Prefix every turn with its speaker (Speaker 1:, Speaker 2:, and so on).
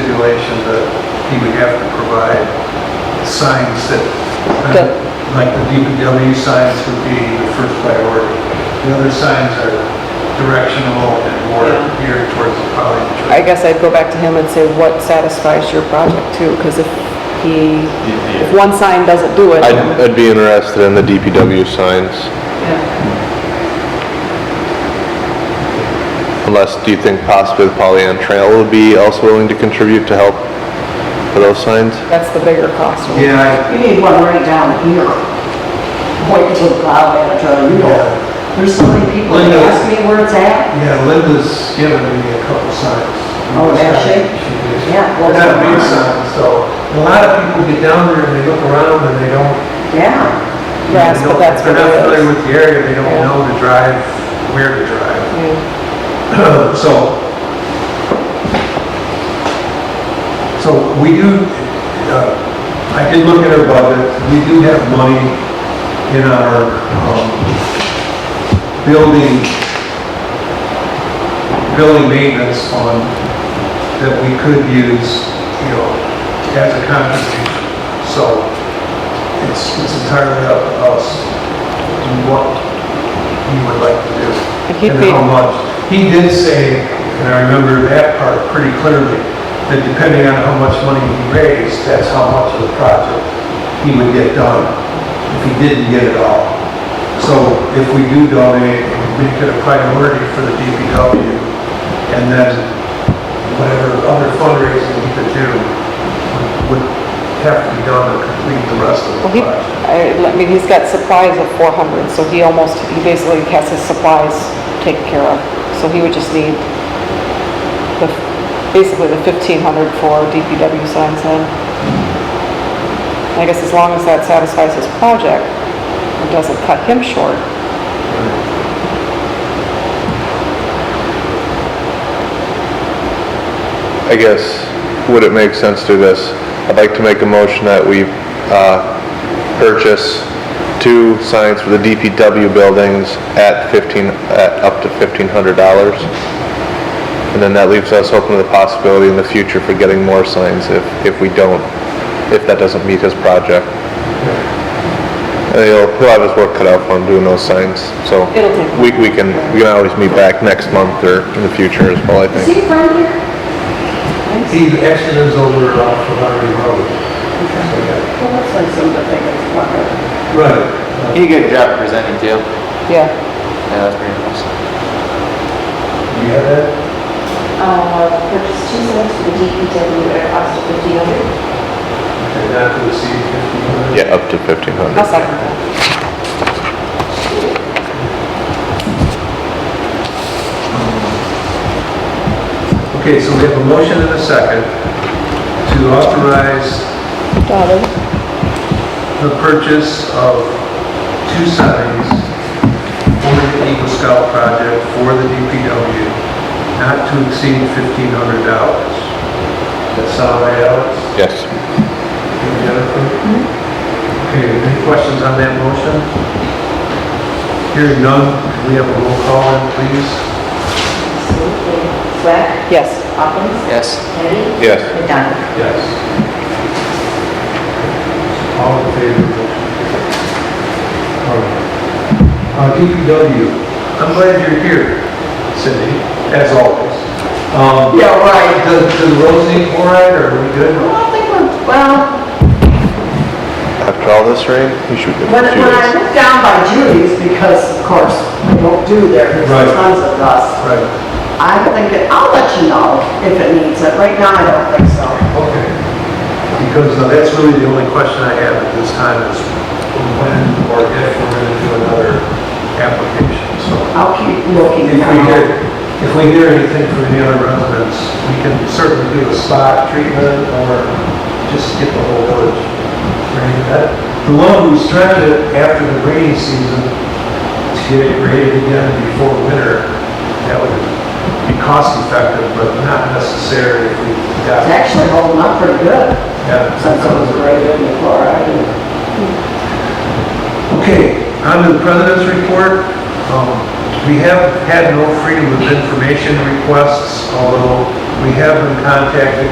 Speaker 1: stipulation that he would have to provide signs that, uh,
Speaker 2: Good.
Speaker 1: like the DPW signs would be the first priority. The other signs are directional and more
Speaker 3: Yeah.
Speaker 1: geared towards the college.
Speaker 2: I guess I'd go back to him and say, what satisfies your project too? Because if he, if one sign doesn't do it,
Speaker 4: I'd, I'd be interested in the DPW signs,
Speaker 3: Yeah.
Speaker 4: unless, do you think possibly the Pollyant Trail would be also willing to contribute to help for those signs?
Speaker 2: that's the bigger cost.
Speaker 1: Yeah, I-
Speaker 3: You need one right down here. Point to the cloud and tell you, there's so many people that
Speaker 1: Linda.
Speaker 3: ask me where it's at.
Speaker 1: yeah, Linda's given me a couple signs.
Speaker 3: Oh, has she?
Speaker 1: did.
Speaker 3: Yeah, well-
Speaker 1: They're not big signs, so a lot of people get down there and they look around and they don't
Speaker 3: Yeah,
Speaker 2: Yes, but that's
Speaker 1: If
Speaker 2: what
Speaker 1: they're not
Speaker 2: it
Speaker 1: familiar
Speaker 2: is.
Speaker 1: with the area, they don't
Speaker 2: Yeah.
Speaker 1: know to drive, where to drive.
Speaker 2: Yeah.
Speaker 1: So, so we do, uh, I did look at our budget, we do have money in our um, building, building maintenance fund that we could use, you know, as a contribution. So it's, it's entirely up to us and what you would like to do.
Speaker 2: And he'd
Speaker 1: And
Speaker 2: be-
Speaker 1: how much. He did say, and I remember that part pretty clearly, that depending on how much money he raised, that's how much of the project he would get done, if he didn't get it all. So if we do donate, we make it a priority for the DPW, and then whatever other fundraising he could do would have to be done to complete the rest of the
Speaker 2: Well, he,
Speaker 1: project.
Speaker 2: I, I mean, he's got supplies of four hundred, so he almost, he basically has his supplies taken care of. So he would just need the, basically the fifteen hundred for DPW signs then. I guess as long as that satisfies his project, it doesn't cut him short.
Speaker 4: I guess, would it make sense to do this? I'd like to make a motion that we, uh, purchase two signs for the DPW buildings at fifteen, at up to fifteen hundred dollars. And then that leaves us open to the possibility in the future for getting more signs if, if we don't, if that doesn't meet his project. And he'll, he'll have his work cut out for him doing those signs, so.
Speaker 2: It'll take-
Speaker 4: We, we can, we can always meet back next month or in the future as well, I
Speaker 3: is
Speaker 4: think.
Speaker 3: he from here?
Speaker 1: He actually lives over off of Harvey Road. So, yeah.
Speaker 3: Well, that's like something I think it's water.
Speaker 1: Right. Uh,
Speaker 5: He did a good job presenting too.
Speaker 2: Yeah.
Speaker 5: Yeah, that's pretty impressive.
Speaker 1: You have that?
Speaker 6: uh, purchase two signs for the DPW at a cost of fifteen hundred.
Speaker 1: Okay, Not to exceed fifteen hundred?
Speaker 4: Yeah, up to fifteen hundred.
Speaker 2: I'll second that.
Speaker 1: Okay, so we have a motion and a second to authorize the purchase of two signs for the Eagle Scout project for the DPW, not to exceed fifteen hundred dollars. That sound right, Alex?
Speaker 4: Yes.
Speaker 1: And Jennifer? Okay, any questions on that motion? Hearing none, can we have a roll call, in, please?
Speaker 6: Swack,
Speaker 2: Yes.
Speaker 6: Hawkins,
Speaker 5: Yes.
Speaker 6: Kennedy,
Speaker 4: Yes.
Speaker 6: McDonald.
Speaker 1: Yes. All in favor of the motion? All right. Uh, DPW, I'm glad you're here, Cindy, as always. Um,
Speaker 3: Yeah, right.
Speaker 1: Does, does Rose need chloride, or are we good?
Speaker 3: Well, I think we're, well,
Speaker 4: After all this rain, we should get
Speaker 3: When,
Speaker 4: the
Speaker 3: when I look down by Julie's, because of course, they don't do there, there's
Speaker 1: Right.
Speaker 3: tons of dust.
Speaker 1: Right,
Speaker 3: I'm thinking, I'll let you know if it needs it. Right now, I don't think so.
Speaker 1: okay. Because uh, that's really the only question I have at this time is when or if we're gonna do another application, so.
Speaker 3: I'll keep looking.
Speaker 1: If we
Speaker 3: now.
Speaker 1: hear, if we hear anything from any other residents, we can certainly do a spot treatment or just get the whole village. drained. That- The one who started it after the rainy season, to get it graded again before winter, that would be cost effective, but not necessary if we got.
Speaker 3: It's actually holding up pretty good
Speaker 1: Yeah.
Speaker 3: since it was graded in the chloride. and-
Speaker 1: Okay, on to the president's report. Um, We have had no freedom of information requests, although we have been contacted